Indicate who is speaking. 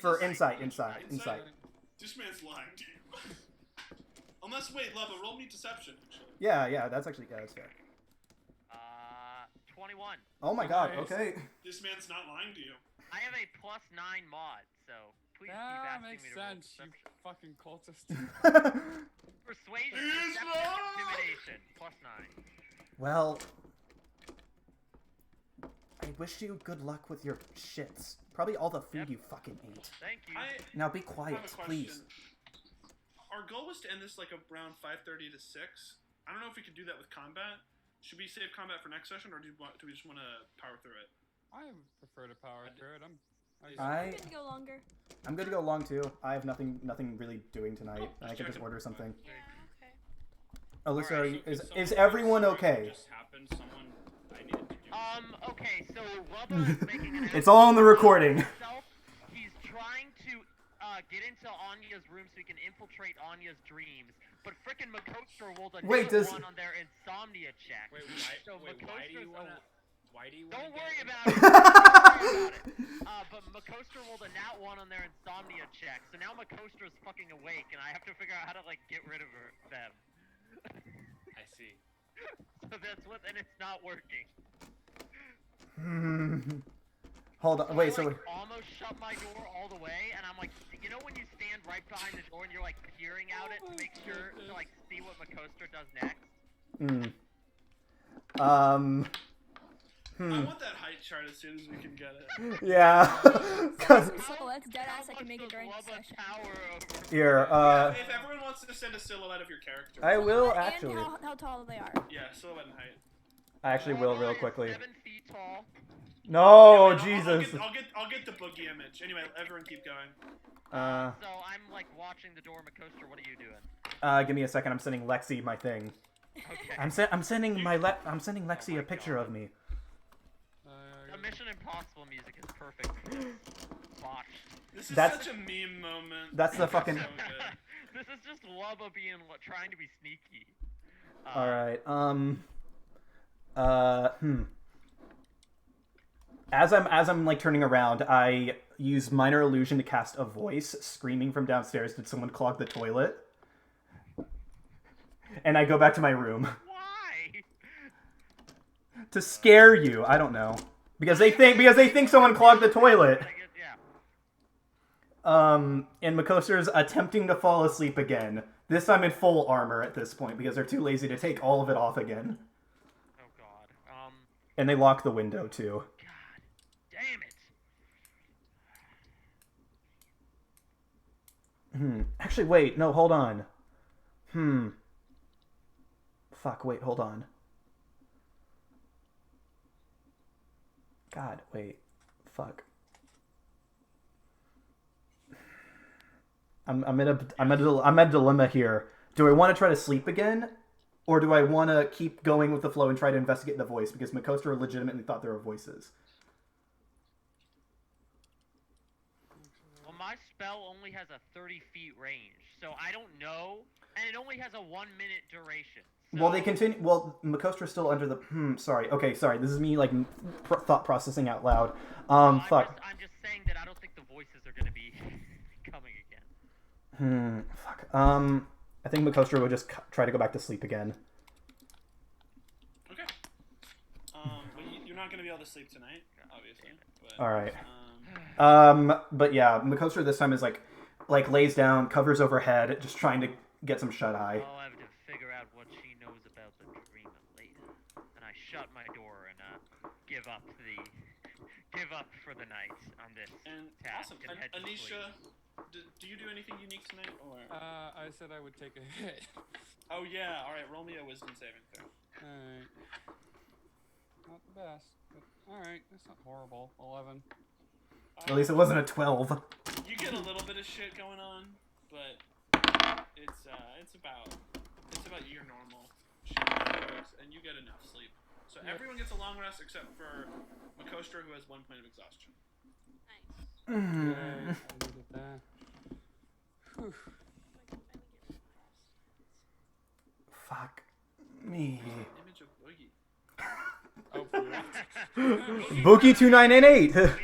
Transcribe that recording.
Speaker 1: for insight, insight, insight.
Speaker 2: This man's lying to you. Unless, wait, Lava, roll me deception. Actually.
Speaker 1: Yeah, yeah, that's actually yeah, that's fair.
Speaker 3: Uh, 21.
Speaker 1: Oh my god.
Speaker 4: Nice.
Speaker 1: Okay.
Speaker 2: This man's not lying to you.
Speaker 3: I have a plus 9 mod, so please keep
Speaker 4: That
Speaker 3: asking
Speaker 4: makes
Speaker 3: me to
Speaker 4: sense,
Speaker 3: roll perception.
Speaker 4: you fucking cultist.
Speaker 3: Persuasion,
Speaker 2: He's
Speaker 3: deception,
Speaker 2: wrong!
Speaker 3: intimidation, plus 9.
Speaker 1: well, I wish you good luck with your shits. Probably all the food
Speaker 3: Yep.
Speaker 1: you fucking ate.
Speaker 3: Thank you.
Speaker 2: I
Speaker 1: Now be
Speaker 2: have
Speaker 1: quiet,
Speaker 2: a question.
Speaker 1: please.
Speaker 2: Our goal was to end this like around 5:30 to 6. I don't know if we could do that with combat. Should we save combat for next session, or do, you want, do we just want to power through it?
Speaker 4: I prefer to power through it. I'm. I,
Speaker 1: I
Speaker 5: I'm gonna go longer.
Speaker 1: I'm good to go long too. I have nothing nothing really doing tonight.
Speaker 2: Oh,
Speaker 1: I can just
Speaker 2: distracted.
Speaker 1: order something.
Speaker 5: Yeah, okay.
Speaker 3: Alright,
Speaker 1: Alyssa, are
Speaker 6: So
Speaker 1: you-
Speaker 6: could
Speaker 1: is
Speaker 6: someone
Speaker 1: is
Speaker 6: tell
Speaker 1: everyone
Speaker 6: us what
Speaker 1: okay?
Speaker 6: Just happened. Someone I needed to do.
Speaker 3: Um, okay, so Lubba is making an
Speaker 1: It's all on the
Speaker 3: effort
Speaker 1: recording.
Speaker 3: himself. He's trying to uh, get into Anya's room so he can infiltrate Anya's dreams. But frickin' Makostra rolled a nat
Speaker 1: Wait, does-
Speaker 3: one on their insomnia check.
Speaker 6: wait, why,
Speaker 3: so
Speaker 6: wait, why do you
Speaker 3: Makostra's
Speaker 6: want?
Speaker 3: al-
Speaker 6: Why do you want?
Speaker 3: Don't
Speaker 6: to
Speaker 3: worry
Speaker 6: get
Speaker 3: about it. Don't worry about it. Uh, but Makostra rolled a nat one on their insomnia check, so now Makostra's fucking awake, and I have to figure out how to like get rid of her, them.
Speaker 6: I see.
Speaker 3: So that's what, and it's not working.
Speaker 1: Hmm. Hold on. Wait.
Speaker 3: I,
Speaker 1: So
Speaker 3: like, almost shut my door all the way, and I'm like, you know when you stand right behind the door and you're like peering out it to
Speaker 5: Oh
Speaker 3: make sure to like see what Makostra does next.
Speaker 1: Hmm. Um.
Speaker 2: I
Speaker 1: Hmm.
Speaker 2: want that height chart as soon as we can get it.
Speaker 1: Yeah. 'Cause-
Speaker 5: So that's dead ass. I
Speaker 3: How
Speaker 5: can make a
Speaker 3: much
Speaker 5: drink
Speaker 3: does Lubba
Speaker 5: session.
Speaker 3: Tower over.
Speaker 1: here. Uh.
Speaker 2: if everyone wants to send a silhouette of your character.
Speaker 1: I will
Speaker 5: and
Speaker 1: actually.
Speaker 5: how, how tall they are.
Speaker 2: yeah, silhouette and height.
Speaker 1: I actually will
Speaker 3: Lubba
Speaker 1: real
Speaker 3: is
Speaker 1: quickly.
Speaker 3: Seven feet tall.
Speaker 2: I'll-
Speaker 1: No,
Speaker 2: I'll,
Speaker 1: Oh, Jesus.
Speaker 2: I'll get, I'll get, I'll get the boogie image. Anyway, everyone keep going.
Speaker 1: Uh.
Speaker 3: So I'm like watching the door, Makostra. What are you doing?
Speaker 1: Uh. Give me a second. I'm sending Lexi my thing.
Speaker 3: Okay.
Speaker 1: I'm se- I'm sending my le- I'm sending Lexi a picture of me.
Speaker 4: Uh,
Speaker 3: The Mission Impossible music is perfect for this botch.
Speaker 2: This is
Speaker 1: That's-
Speaker 2: such a meme moment.
Speaker 1: that's the fucking-
Speaker 2: So good.
Speaker 3: this is just Lubba being lo- trying to be sneaky. Uh,
Speaker 1: All right. Um. Uh. Hmm. As I'm as I'm like turning around, I use minor illusion to cast a voice screaming from downstairs. Did someone clog the toilet? And I go back to my room
Speaker 3: Why?
Speaker 1: to scare you. I don't know because they think because they think someone clogged the toilet.
Speaker 3: I guess, yeah.
Speaker 1: Um, and Makoster's attempting to fall asleep again. This time in full armor at this point because they're too lazy to take all of it off again.
Speaker 3: Oh God. Um.
Speaker 1: And they lock the window too.
Speaker 3: God. Damn it.
Speaker 1: Hmm. Actually, wait. No, hold on. Hmm. Fuck. Wait. Hold on. God. Wait. Fuck. I'm I'm in a I'm at a, I'm at a dilemma here. Do I want to try to sleep again, or do I want to keep going with the flow and try to investigate the voice because Makostra legitimately thought there were voices?
Speaker 3: Well, my spell only has a 30 feet range, so I don't know, and it only has a one minute duration. So
Speaker 1: Well, they continue. Well, Makostra's still under the. Hmm. Sorry. Okay. Sorry. This is me like m- pr- thought processing out loud.
Speaker 3: I'm
Speaker 1: Um. Fuck.
Speaker 3: Just, I'm just saying that I don't think the voices are gonna be coming again.
Speaker 1: Hmm. Fuck. Um. I think Makostra will just c- try to go back to sleep again.
Speaker 2: Okay. Um, well, you, you're not gonna be able to sleep tonight, obviously. But,
Speaker 1: All right.
Speaker 2: Um,
Speaker 1: Um. But yeah, Makostra this time is like, like lays down, covers over head, just trying to get some shut eye.
Speaker 3: I'll have to figure out what she knows about the dream later. And I shut my door and uh, give up the give up for the night on this
Speaker 2: and
Speaker 3: task
Speaker 2: awesome.
Speaker 3: and
Speaker 2: An-
Speaker 3: head to
Speaker 2: Anisha,
Speaker 3: sleep.
Speaker 2: do, do you do anything unique tonight, or?
Speaker 4: Uh, I said I would take a hit.
Speaker 2: oh yeah. All right. Roll me a wisdom saving throw.
Speaker 4: Alright. Not the best, but alright, that's not horrible. 11.
Speaker 1: At least it wasn't a twelve.
Speaker 2: Um, You get a little bit of shit going on, but it's uh, it's about it's about your normal shit, and you get enough sleep. So
Speaker 4: Yeah.
Speaker 2: everyone gets a long rest except for Makostra, who has one point of exhaustion.
Speaker 5: Nice.
Speaker 1: Hmm.
Speaker 4: Yay, I needed that. Whew.
Speaker 1: Fuck. Me.
Speaker 2: Image of Boogie.
Speaker 4: Oh, for real?
Speaker 1: Bookie two nine eight eight.